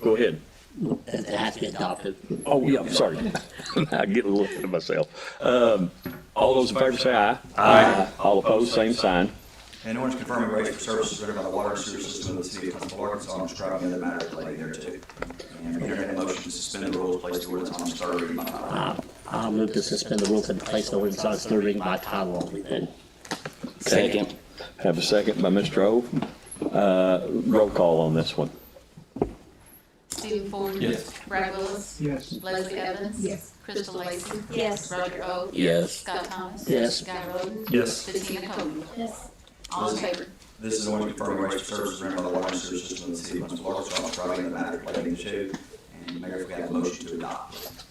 Go ahead. it has to be adopted. Oh, yeah, I'm sorry. I get a little ahead of myself. Um, All those in favor say aye. Aye. All opposed, same sign. An ordinance confirming rates for services rendered by the water and sewer system of the city of Huntsville, Arkansas, and describing other matters relating thereto. And we entertain a motion to suspend the rules, place the ordinance on its third reading by title. only. Um, I'll move to suspend the rules and place the ordinance on its third reading by title only then. Second. Have a second by Mr. Ove. Uh, Roll call on this one. Stephen Ford. Yes. Brad Willis. Yes. Leslie Evans. Yes. Crystal Lacy. Yes. Roger O. Yes. Scott Thomas. Yes. Guy Roden. Yes. Bettina Cody. Yes. All in favor? This is an ordinance confirming rates for services rendered by the water and sewer system of the city of Huntsville, Arkansas, and describing other matters relating thereto. And Mayor, if we have a motion to adopt.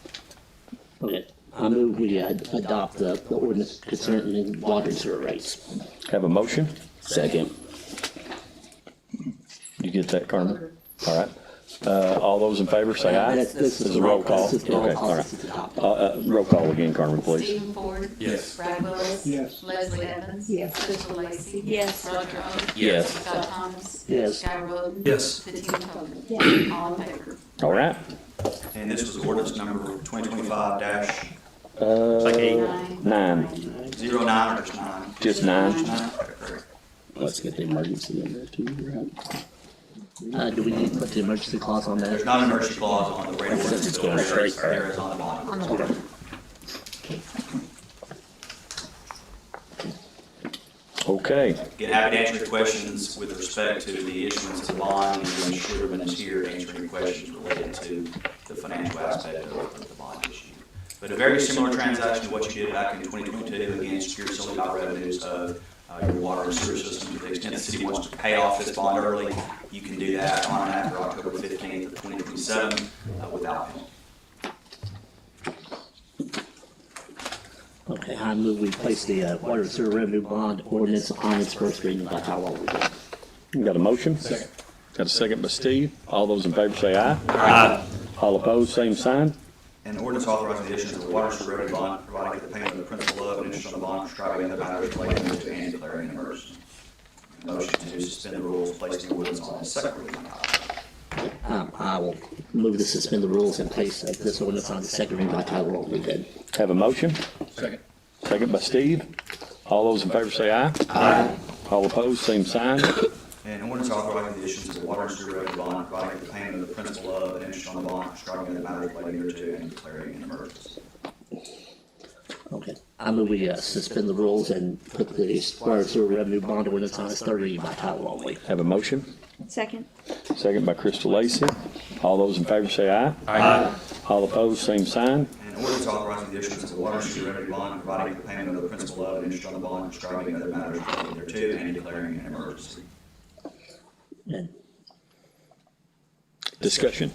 Okay, I move we ad- adopt the the ordinance concerning water and sewer rates. Have a motion? Second. You get that, Carmen? All right. Uh, All those in favor say aye. This- This is a roll call. This is the roll Okay, call, all this right. is adopted. Uh, uh, Roll call again, Carmen, please. Stephen Ford. Yes. Brad Willis. Yes. Leslie Evans. Yes. Crystal Lacy. Yes. Roger O. Yes. Scott Thomas. Yes. Guy Roden. Yes. Bettina Cody. Yes. All in favor? All right. And this was ordinance number twenty twenty-five dash Uh, Nine. Nine, zero nine, or just nine? just nine. Nine, okay, great. Let's get the emergency in there too, right? Uh, do we need to put the emergency clause on There's there? not an emergency clause on the rate ordinance. It's going straight. There is on the bottom. On the bottom. Okay. Get happy to answer your questions with respect to the issuance of the bond, and then Sherman is here answering questions related to the financial aspect of the bond issue. But a very similar transaction to what you did back in 2022, again, secured solely by revenues of uh, your water and sewer system. To the extent the city wants to pay off this bond early, you can do that on and after October 15th of 2027 uh, without penalty. Okay, I move we place the uh, water and sewer revenue bond ordinance on its first reading by title only then. Got a motion? Second. Got a second by Steve. All those in favor say aye. Aye. All opposed, same sign. An ordinance authorizing the issuance of a water and sewer revenue bond, providing for the payment of the principal of and interest on the bond, prescribing other matters relating to and declaring an emergency. Motion to suspend the rules, place the ordinance on its second reading. Um, I will move to suspend the rules and place uh, this ordinance on the second reading by title only then. Have a motion? Second. Second by Steve. All those in favor say aye. Aye. All opposed, same sign. An ordinance authorizing the issuance of a water and sewer revenue bond, providing for the payment of the principal of and interest on the bond, prescribing other matters relating to and declaring an emergency. Okay, I move we uh, suspend the rules and put the water and sewer revenue bond ordinance on its third reading by title only. Have a motion? Second. Second by Crystal Lacy. All those in favor say aye. Aye. All opposed, same sign. An ordinance authorizing the issuance of a water and sewer revenue bond, providing for the payment of the principal of and interest on the bond, prescribing other matters relating to and declaring an emergency. And Discussion.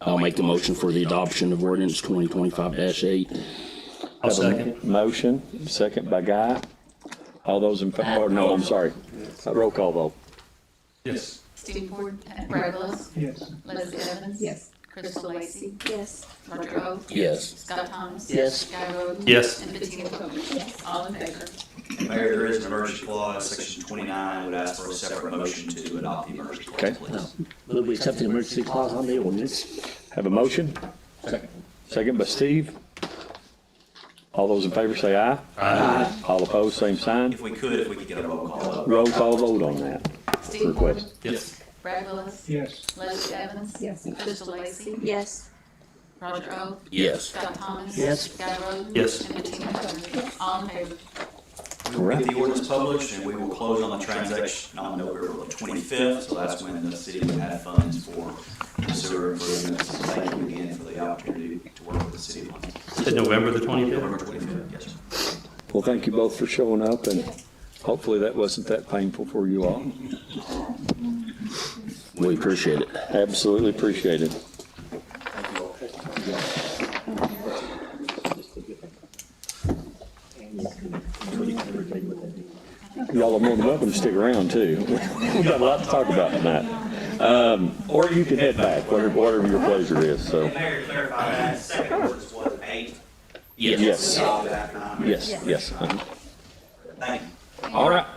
I'll make the motion for the adoption of ordinance twenty twenty-five eight. Have a Motion, second by Guy. All those in, fa- or no, I'm sorry. Roll call vote. Yes. Stephen Ford. Brad Willis. Yes. Leslie Evans. Yes. Crystal Lacy. Yes. Roger O. Yes. Scott Thomas. Yes. Guy Roden. Yes. And Bettina Cody. Yes. All in favor? Mayor, there is an emergency clause, section twenty-nine, I would ask for a separate motion to adopt the emergency Okay. clause, please. move we accept the emergency clause on the ordinance. Have a motion? Second by Steve. All those in favor say aye. Aye. All opposed, same sign. If we could, if we could get a roll call up. Roll call vote on that. Stephen Ford. Request. Yes. Brad Willis. Yes. Leslie Evans. Yes. Crystal Lacy. Yes. Roger O. Yes. Scott Thomas. Yes. Guy Roden. Yes. And Bettina Cody. All in favor? We will get the ordinance published, and we will close on the transaction on November twenty-fifth, so that's when the city will have funds for sewer improvements. Thank you again for the opportunity to work with the city on Said November the November twenty-fifth? twenty-fifth, yes, sir. Well, thank you both for showing up, and hopefully that wasn't that painful for you all. We appreciate it. Absolutely appreciate it. Thank you all. Y'all are more than welcome to stick around, too. We've got a lot to talk about tonight. Um, Or you can head back, whatever whatever your pleasure is, so. Mayor, clarify that, second ordinance was eight. Yes. Yes, yes. Yes. uh-huh. Thank you. All right,